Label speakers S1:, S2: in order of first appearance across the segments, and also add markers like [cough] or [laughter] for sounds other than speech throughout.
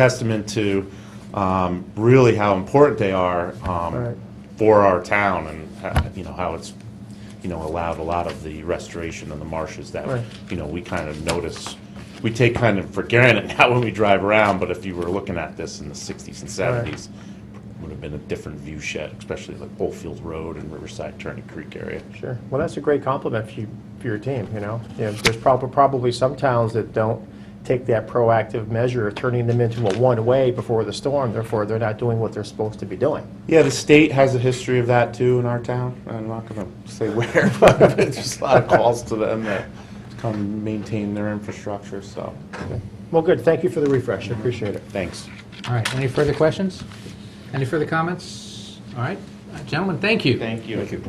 S1: testament to um, really how important they are um,
S2: Right.
S1: for our town and, uh, you know, how it's, you know, allowed a lot of the restoration of the marshes that,
S2: Right.
S1: you know, we kind of notice, we take kind of for granted [laughs] now when we drive around, but if you were looking at this in the 60s and 70s, would have been a different view shed, especially like Oldfield Road and Riverside Turning Creek area.
S2: Sure. Well, that's a great compliment for you, for your team, you know? You know, there's probably, probably some towns that don't take that proactive measure of turning them into a one-way before the storm, therefore they're not doing what they're supposed to be doing.
S1: Yeah, the state has a history of that too in our town. I'm not going to say where, [laughs] but it's just a lot of calls to them that come maintain their infrastructure, so,
S2: Well, good. Thank you for the refresh. I appreciate it.
S1: thanks.
S3: All right, any further questions? Any further comments? All right, uh, gentlemen, thank you.
S1: Thank you. Thank you.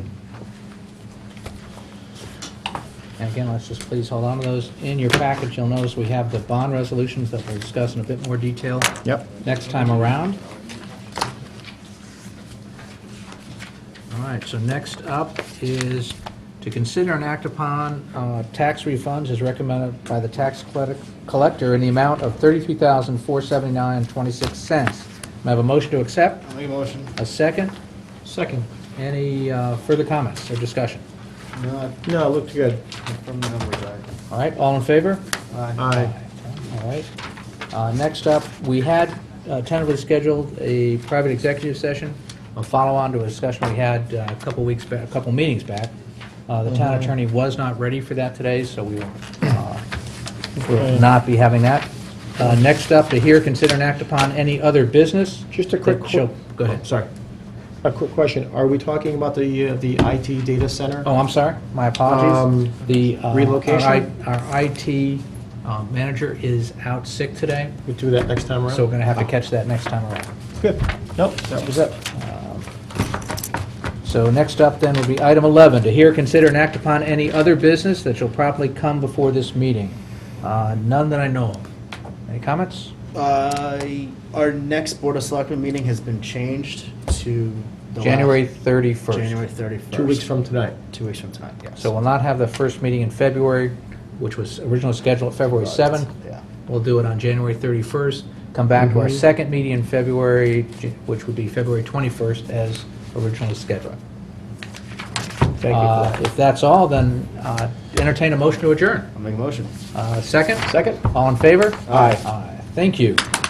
S3: And again, let's just please hold on to those. In your package, you'll notice we have the bond resolutions that we'll discuss in a bit more detail
S2: Yep.
S3: next time around. All right, so next up is to consider and act upon uh, tax refunds as recommended by the tax collect- collector in the amount of $33,479.26. May I have a motion to accept?
S4: Make a motion.
S3: A second?
S4: Second.
S3: Any uh, further comments or discussion?
S4: No,
S2: No, it looked good.
S4: from the numbers, aye.
S3: All right, all in favor?
S4: Aye.
S2: Aye.
S3: All right. Uh, Next up, we had uh, tentatively scheduled a private executive session, a follow-on to a discussion we had uh, a couple weeks, back, a couple meetings back. Uh, The
S2: Mm-hmm.
S3: town attorney was not ready for that today, so we will uh, will not be having that. Uh, Next up, to hear, consider, and act upon any other business.
S2: Just a quick
S3: that shall-
S2: qu-
S3: Go ahead.
S2: Sorry. A quick question. Are we talking about the, uh, the IT data center?
S3: Oh, I'm sorry, my apologies.
S2: Um,
S3: The uh,
S2: relocation?
S3: our I- Our IT uh, manager is out sick today,
S2: We do that next time around?
S3: so we're going to have to catch that next time around.
S2: Good. Nope, that was it.
S3: So next up then would be item 11, to hear, consider, and act upon any other business that shall properly come before this meeting. Uh, None that I know of. Any comments?
S4: Uh, our next Board of Selectmen meeting has been changed to. the last-
S3: January 31st.
S4: January thirty-first.
S2: Two weeks from tonight.
S4: Two weeks from tonight, yes.
S3: So we'll not have the first meeting in February, which was originally scheduled February 7th.
S4: Yeah.
S3: We'll do it on January 31st, come back to our
S2: Mhm.
S3: second meeting in February, J- which would be February 21st as originally scheduled.
S2: Thank you
S3: Uh,
S2: for that.
S3: If that's all, then uh, entertain a motion to adjourn.
S4: I'll make a motion.
S3: Uh, Second?
S2: Second?
S3: All in favor?
S2: Aye.
S3: Aye. Thank you.